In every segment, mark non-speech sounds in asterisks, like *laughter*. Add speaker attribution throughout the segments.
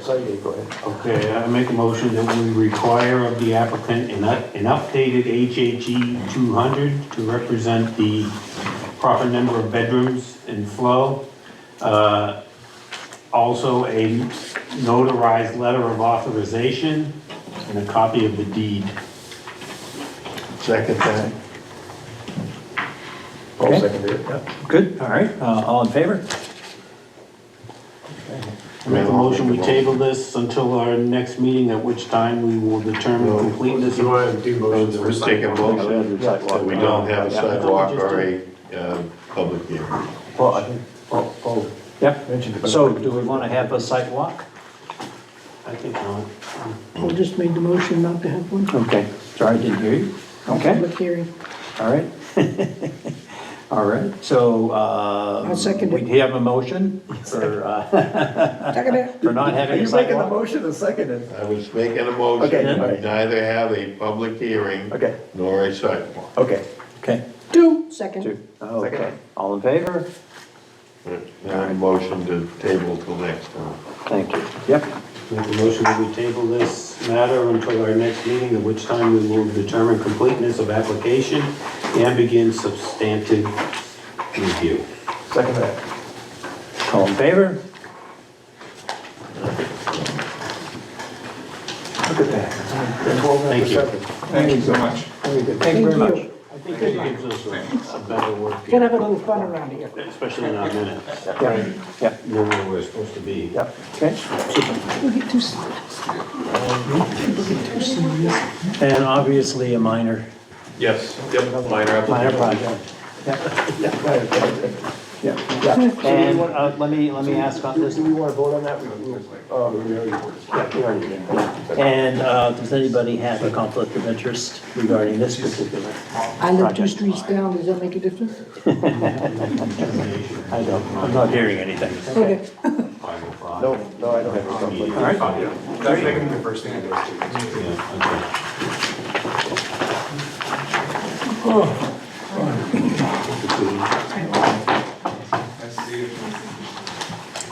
Speaker 1: sorry, yeah, go ahead.
Speaker 2: Okay, I make a motion that we require of the applicant an up- an updated HHE 200 to represent the proper number of bedrooms in flow. Uh, Also, a notarized letter of authorization and a copy of the deed.
Speaker 1: Second that.
Speaker 3: Okay.
Speaker 1: Paul seconded it, yeah.
Speaker 3: Good, all right, uh, all in favor?
Speaker 2: I make a motion, we table this until our next meeting, at which time we will determine completeness.
Speaker 4: You want to do motions
Speaker 1: We're
Speaker 4: for
Speaker 1: just taking a
Speaker 4: sidewalk?
Speaker 1: vote
Speaker 5: That we don't have a sidewalk or a uh, public hearing.
Speaker 1: Paul, I think, Paul, Paul mentioned
Speaker 3: Yep,
Speaker 1: about-
Speaker 3: so do we want to have a site walk?
Speaker 2: I think not.
Speaker 6: I just made the motion not to have one
Speaker 3: Okay, sorry, I didn't hear you. Okay,
Speaker 6: public hearing.
Speaker 3: all right. *laughs* All right, so, uh.
Speaker 6: I'll second it.
Speaker 3: We have a motion for,
Speaker 6: *laughs*
Speaker 3: uh,
Speaker 6: Second it.
Speaker 3: for not
Speaker 1: Are
Speaker 3: having a
Speaker 1: you making the
Speaker 3: sidewalk?
Speaker 1: motion or seconded?
Speaker 5: I was making a
Speaker 1: Okay,
Speaker 5: motion,
Speaker 1: all
Speaker 5: to
Speaker 1: right.
Speaker 5: neither have a public hearing
Speaker 1: Okay.
Speaker 5: nor a sidewalk.
Speaker 1: Okay.
Speaker 3: Okay,
Speaker 6: Two, second.
Speaker 3: two, okay, all in favor?
Speaker 5: Now, a motion to table till next time.
Speaker 3: Thank you, yep,
Speaker 2: Make a motion that we table this matter until our next meeting, at which time we will determine completeness of application and begin substantive review.
Speaker 1: Second that.
Speaker 3: all in favor?
Speaker 1: Look at that. Twelve after
Speaker 2: Thank you.
Speaker 1: seven.
Speaker 7: Thank you so much.
Speaker 1: Very good.
Speaker 3: Thank you very much.
Speaker 2: I think it gives us a- a better work,
Speaker 6: Gotta have a little fun around here.
Speaker 2: especially in our minutes,
Speaker 3: Yeah, yeah,
Speaker 2: know where we're supposed to be.
Speaker 3: yeah, okay.
Speaker 6: We'll get two sides. We'll get two sides.
Speaker 3: And obviously a minor,
Speaker 4: Yes, yep, minor
Speaker 3: minor
Speaker 4: application.
Speaker 3: project,
Speaker 1: Right, okay.
Speaker 3: yeah, yeah. And, uh, let me, let me ask on
Speaker 1: Do
Speaker 3: this,
Speaker 1: do we want to vote on that? We- we- uh, we already- yeah, we already did.
Speaker 3: and, uh, does anybody have a conflict of interest regarding this particular?
Speaker 6: I live two streets down, does that make a difference?
Speaker 3: I don't, I'm not hearing anything.
Speaker 6: Okay.
Speaker 2: Five oh five.
Speaker 1: No, no, I don't have a conflict.
Speaker 2: All right.
Speaker 4: That's making the first thing I go to.
Speaker 2: Yeah, okay. Oh.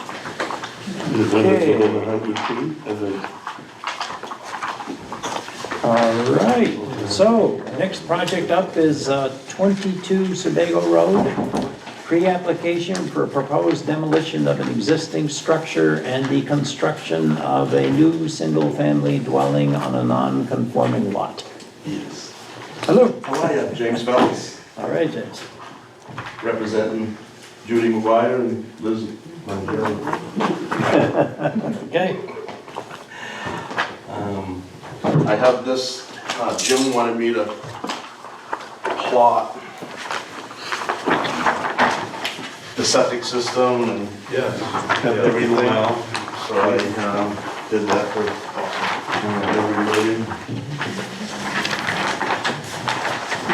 Speaker 5: Is it within a hundred feet of the
Speaker 3: All right, so, next project up is uh, 22 Sebago Road, pre-application for proposed demolition of an existing structure and the construction of a new single-family dwelling on a non-conforming lot. Hello,
Speaker 8: How are you? James Phelps,
Speaker 3: all right, James.
Speaker 8: representing Judy McGuire and Liz Montero.
Speaker 3: Okay,
Speaker 8: Um, I have this, uh, Jim wanted me to plot the septic system and
Speaker 5: Yeah.
Speaker 8: everything.
Speaker 5: Everything else.
Speaker 8: So I um, did that for uh, everybody.
Speaker 6: You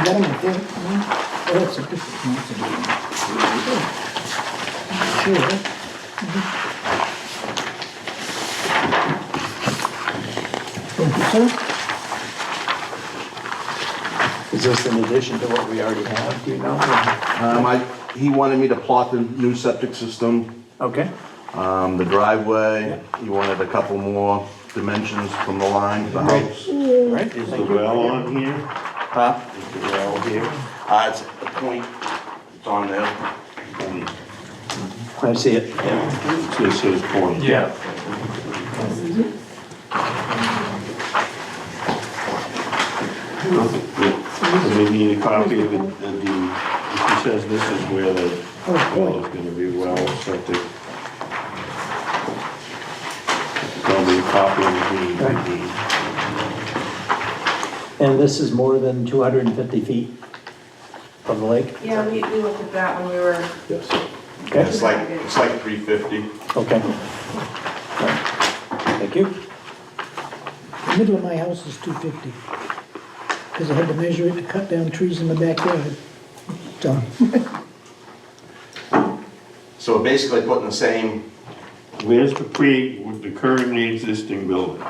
Speaker 6: got 'em up there? Oh, that's a good one. Sure. Thank you, sir.
Speaker 3: is this in addition to what we already have, do you know?
Speaker 8: Um, I, he wanted me to plot the new septic system,
Speaker 3: Okay,
Speaker 8: um, the driveway. He wanted a couple more dimensions from the line to the house.
Speaker 3: all right,
Speaker 5: Is the well on here?
Speaker 8: Huh?
Speaker 5: Is the well here?
Speaker 8: Uh, it's a point, it's on there.
Speaker 3: I see it. Yeah.
Speaker 5: This is point.
Speaker 3: Yeah.
Speaker 5: And we need a copy of it, of the, he says this is where the well is gonna be, well, septic. Probably a copy of the, the,
Speaker 3: And this is more than 250 feet from the lake?
Speaker 9: Yeah, we, we looked at that when we were
Speaker 3: Okay.
Speaker 8: It's like, it's like three fifty.
Speaker 3: Okay. Thank you.
Speaker 6: The middle of my house is two fifty. Cause I had to measure it to cut down trees in the backyard. So,
Speaker 8: So we're basically putting the same,
Speaker 5: where's the pre, with the currently existing building?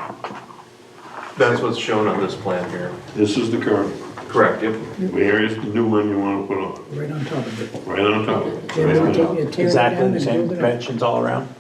Speaker 4: That's what's shown on this plan here.
Speaker 5: This is the current,
Speaker 4: Correct, yep.
Speaker 5: where is the new one you wanna put on?
Speaker 6: right on top of it.
Speaker 5: Right on top of it.
Speaker 6: They're
Speaker 5: Right on
Speaker 6: gonna
Speaker 5: top.
Speaker 6: take- tear it down
Speaker 3: Exactly the
Speaker 6: and
Speaker 3: same
Speaker 6: build it up.
Speaker 3: dimensions all around?